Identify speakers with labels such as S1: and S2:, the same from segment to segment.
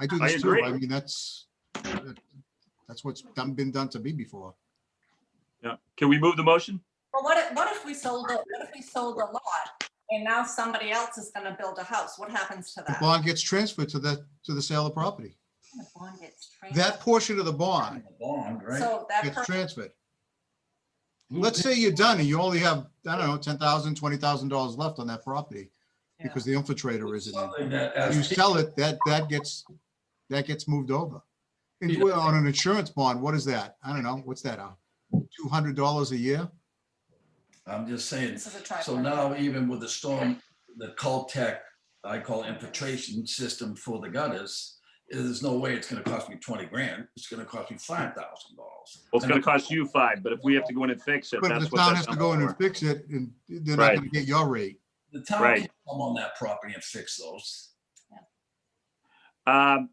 S1: I do
S2: I
S1: this too.
S2: agree.
S1: I mean, that's, that's what's done, been done to me before.
S2: Yeah. Can we move the motion?
S3: Well, what if, what if we sold, it? what if we sold a lot and now somebody else is gonna build a house? What happens to
S1: The
S3: that?
S1: bond gets transferred to the, to the sale of property.
S3: The bond gets transferred.
S1: That portion of the bond
S4: Bond, right?
S3: So that,
S1: gets
S3: per-
S1: transferred. Let's say you're done and you only have, I don't know, ten thousand, twenty thousand dollars left on that property because the infiltrator isn't in.
S4: Something that-
S1: You
S4: as-
S1: sell it, that, that gets, that gets moved over. And well, on an insurance bond, what is that? I don't know. What's that? uh, Two hundred dollars a year?
S4: I'm just saying,
S3: this is a tripod.
S4: so now even with the storm, the Caltech, I call infiltration system for the gutters, there's no way it's gonna cost me twenty grand. It's gonna cost me five thousand dollars.
S2: Well, it's gonna cost you five, but if we have to go in and fix it,
S1: But if
S2: that's
S1: the
S2: what
S1: town
S2: that's
S1: has to go in and
S2: for.
S1: fix it and they're not
S2: Right.
S1: gonna get your rate.
S4: The town
S2: Right.
S4: can come on that property and fix those.
S2: Um,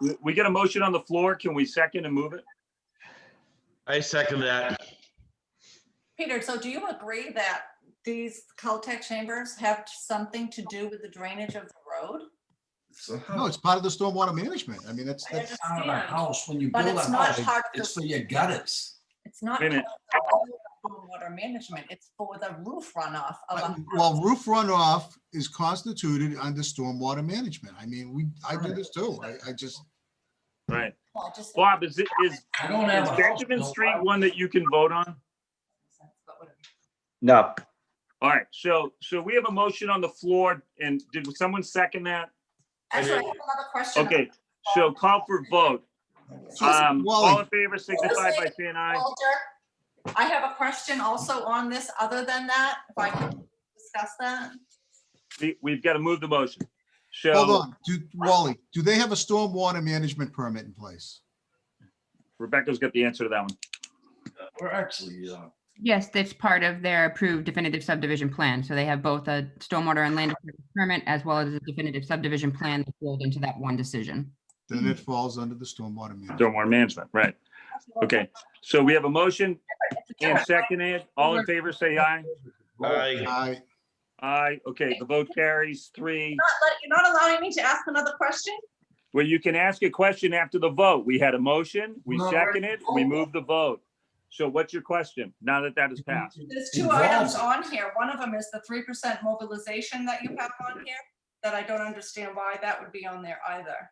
S2: we- We get a motion on the floor. Can we second and move it?
S5: I second that.
S3: Peter, so do you agree that these Caltech chambers have something to do with the drainage of the road?
S4: So
S1: No,
S4: how,
S1: it's part of the stormwater management. I mean, that's,
S3: I
S1: that's,
S4: out of a
S3: understand.
S4: house, when you
S3: But
S4: build a
S3: it's not
S4: house,
S3: part of
S4: it's
S3: the-
S4: for your gutters.
S3: It's not
S2: Wait a minute.
S3: for the water management, it's for the roof runoff of a
S1: well, roof runoff is constituted under stormwater management. I mean, we, I do this too. I, I just,
S2: Right.
S3: Well, I just-
S2: Bob, is it, is is
S4: I don't have a house.
S2: Benjamin
S4: built,
S2: Street
S4: I-
S2: one that you can vote on?
S3: But whatever.
S6: No,
S2: All right, so, so we have a motion on the floor and did someone second that?
S3: Actually, I have another question.
S2: Okay, so call for vote. Um, all in favor signify by saying aye.
S3: Walter, I have a question also on this, other than that, if I can discuss that.
S2: We- We've got to move the motion.
S1: hold
S2: So
S1: on. Do, Wally, do they have a stormwater management permit in place?
S2: Rebecca's got the answer to that one.
S4: We're actually, uh,
S7: Yes, that's part of their approved definitive subdivision plan. So they have both a stormwater and land disturbance permit as well as a definitive subdivision plan that rolled into that one decision.
S1: Then it falls under the stormwater management.
S2: Stormwater management, right. Okay, so we have a motion and seconded. All in favor, say aye.
S5: I,
S1: I,
S2: Aye, okay, the vote carries three.
S3: Not let- You're not allowing me to ask another question?
S2: Well, you can ask a question after the vote. We had a motion, we
S4: No, we're-
S2: seconded, we moved the vote. So what's your question now that that is passed?
S3: There's two items
S4: Involved.
S3: on here. One of them is the three percent mobilization that you have on here, that I don't understand why that would be on there either.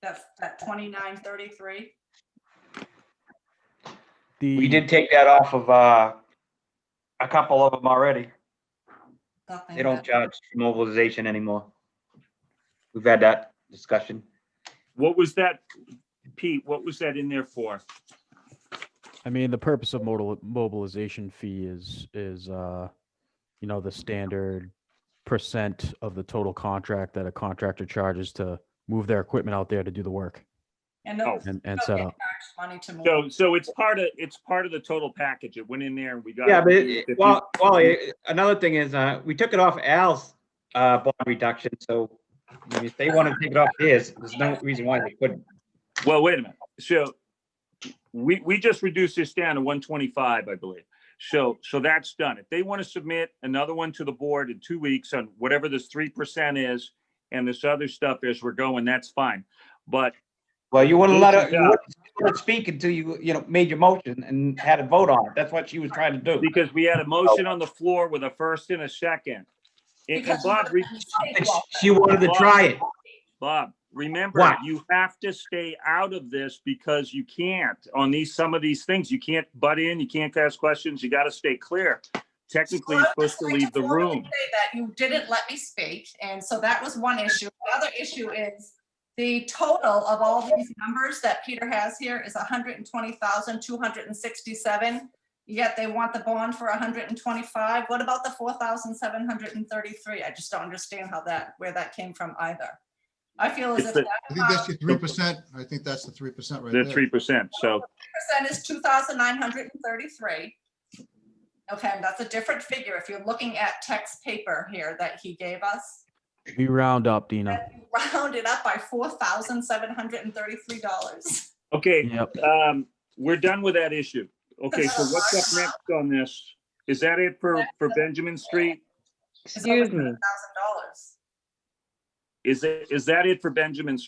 S3: That, that twenty-nine thirty-three.
S6: we did take that off of, uh, a couple of them already. They don't charge mobilization anymore. We've had that discussion.
S2: What was that, Pete, what was that in there for?
S8: I mean, the purpose of modal mobilization fee is, is, uh, you know, the standard percent of the total contract that a contractor charges to move their equipment out there to do the work
S3: And
S2: Oh.
S3: those
S8: and,
S3: don't
S8: and
S6: uh,
S8: set
S3: get
S8: up.
S3: charged money to move.
S2: So, so it's part of, it's part of the total package. It went in there and we got.
S6: Yeah, but
S2: it.
S6: it- well, well, it- another thing is, uh, we took it off Al's, uh, bond reduction, so if they want to take it off theirs, there's no reason why they couldn't.
S2: Well, wait a minute. So we, we just reduced this down to one twenty-five, I believe. So, so that's done. If they want to submit another one to the board in two weeks on whatever this three percent is and this other stuff is, we're going, that's fine. But
S6: Well, you wouldn't let her, you
S2: Yeah.
S6: wouldn't let her speak until you, you know, made your motion and had a vote on it. That's what she was trying to do.
S2: because we had a motion on the floor with a first and a second. And and
S3: Because
S2: Bob, re-
S6: And She wanted to try it.
S2: Bob, remember,
S6: What?
S2: you have to stay out of this because you can't on these, some of these things. You can't butt in, you can't ask questions, you gotta stay clear. Technically, you're
S3: Well, I was
S2: supposed to
S3: just
S2: leave the
S3: going formally
S2: room.
S3: say That you didn't let me speak, and so that was one issue. The other issue is the total of all these numbers that Peter has here is hundred and twenty thousand, two hundred and sixty-seven. Yet they want the bond for hundred and twenty-five. What about the four thousand, seven hundred and thirty-three? I just don't understand how that, where that came from either. I feel as
S2: It's
S3: if
S2: the-
S3: that
S1: I think that's your three percent. I think that's the three percent right
S2: The
S1: there.
S2: three percent, so.
S3: percent is two thousand, nine hundred and thirty-three. Okay, and that's a different figure if you're looking at text paper here that he gave us.
S8: We round up, Dina.
S3: that you rounded up by four thousand seven hundred and thirty-three dollars.
S2: Okay,
S8: Yep.
S2: um, we're done with that issue. Okay, so what's up next on this? Is that it for, for Benjamin Street?
S3: Excuse me. Thousand dollars.
S2: Is it, is that it for Benjamin Street?